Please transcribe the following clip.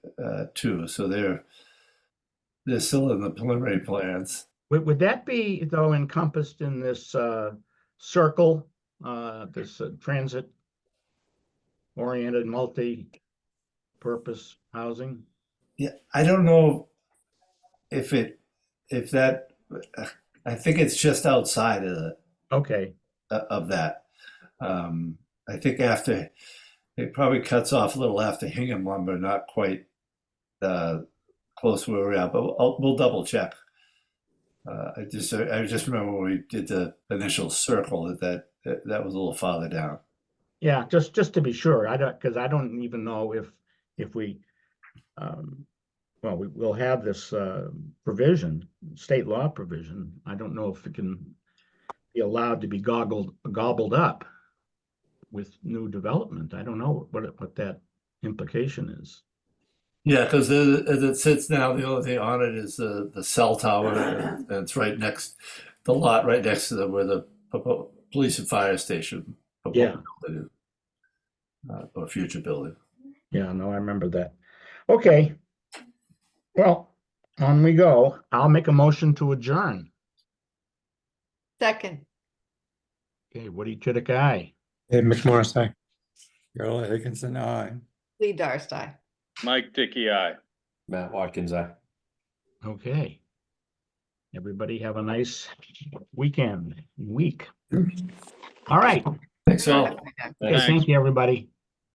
uh, too. So they're they're still in the preliminary plans. Would, would that be though encompassed in this uh circle, uh this uh, transit oriented multi-purpose housing? Yeah, I don't know if it if that. I think it's just outside of the, Okay, of that. Um, I think after it probably cuts off a little after Hingham lumber, not quite uh, close where we're at, but we'll, we'll double check. Uh, I just I just remember when we did the initial circle that that that, that was a little farther down. yeah, just just to be sure, I don't, because I don't even know if if we um well, we will have this uh provision, state law provision. I don't know if it can be allowed to be goggled gobbled up with new development. I don't know what it- what that implication is. Yeah, because as it sits now, the only thing on it is the the cell tower, and it's right next the lot right next to the where the propo- police and fire station. proposed Yeah. building is, uh, or future building. Yeah, no, I remember that. Okay. Well, on we go. I'll make a motion to adjourn. Second, Okay, Woody Chidick, aye. Dave McMorris, aye. Carol Higginson, aye. Lee Darcey. Mike Dickey, aye. Matt Watkins, aye. Okay. Everybody have a nice weekend, week. All right. Thanks all. Okay, Thanks. Thank you, everybody.